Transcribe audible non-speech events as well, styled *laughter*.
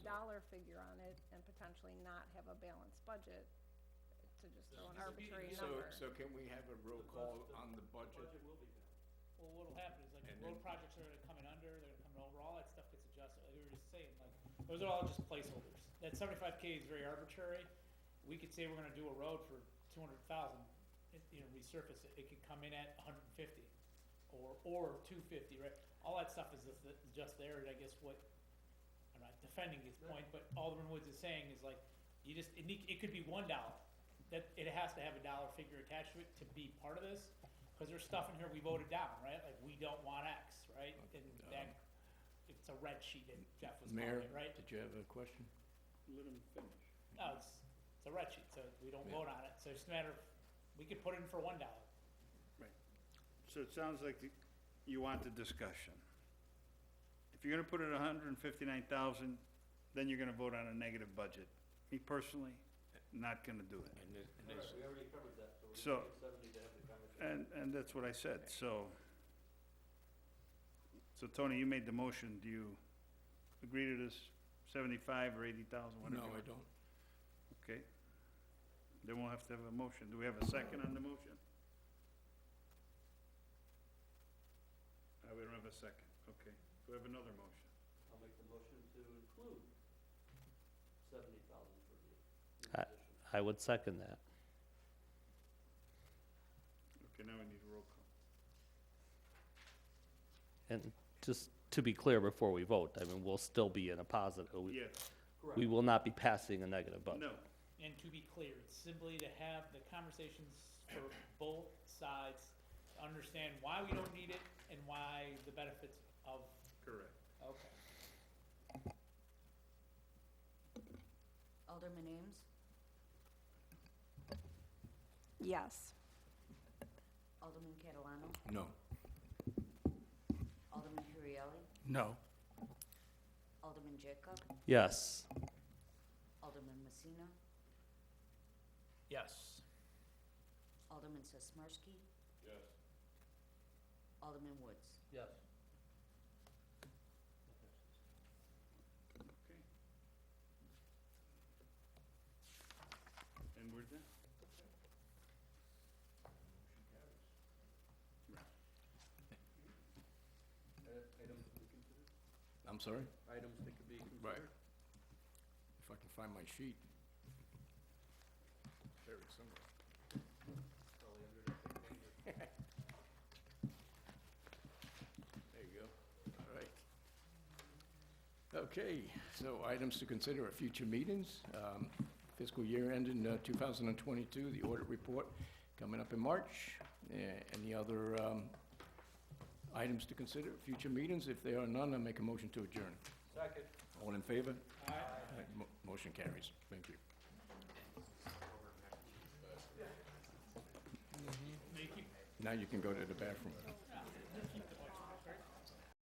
dollar figure on it and potentially not have a balanced budget to just throw an arbitrary So, number. so can we have a roll call on the budget? Budget will be Well, what'll happen is like And road then- projects are gonna come in under, they're gonna come in over, all that stuff gets adjusted, like we were just saying, like, those are all just placeholders. That seventy-five K is very arbitrary, we could say we're gonna do a road for two hundred thousand, you know, resurface it, it could come in at hundred and fifty, or, or two fifty, right? All that stuff is just, just there, and I guess what, I'm not defending his point, but Alderman Woods is saying is like, you just, it need, it could be one dollar. That, it has to have a dollar figure attached to it to be part of this, cause there's stuff in here we voted down, right? Like, we don't want X, right? And that, it's a red sheet that Jeff was calling Mayor, it, right? did you have a question? Let him finish. No, it's, it's a red sheet, so we don't vote on it, so it's just a matter of, we could put it in for one dollar. Right. So it sounds like the- you want the discussion. If you're gonna put it hundred and fifty-nine thousand, then you're gonna vote on a negative budget. Me personally, not gonna do it. And this- and All this- right, we already covered that, so So- we need seventy to have the conversation. And, and that's what I said, so. So Tony, you made the motion, do you agree to this seventy-five or eighty thousand, whatever? No, I don't. Okay. Then we'll have to have a motion. Do we have a second on the motion? Uh, we don't have a second, okay. Do we have another motion? I'll make the motion to include seventy thousand for the I- position. I would second that. Okay, now we need a roll call. And just to be clear before we vote, I mean, we'll still be in a positive. We- Yes, We will not be passing a negative budget. no, And to be clear, it's simply to have the conversations for both sides, to understand why we don't need it and why the benefits of, correct. okay. Alderman Ames, Yes. Alderman Catalano, No. Alderman Hurrielli, No. Alderman Jacob, Yes, Alderman Messina, Yes. Alderman Sismarski, Yes. Alderman Woods. Yes. Okay. And we're done? Items to be considered? I'm sorry? Items that could be considered? Right. If I can find my sheet. There it is somewhere. Probably under the same language. *laughs* There you go. All right. Okay, so items to consider at future meetings. Um, Fiscal year ending uh, 2022, the audit report coming up in March. Eh, Any other um, items to consider at future meetings? If there are none, I'll make a motion to adjourn. Second. All in favor? Aye. Mo- Motion carries. Thank you. They keep Now you can go to the bathroom.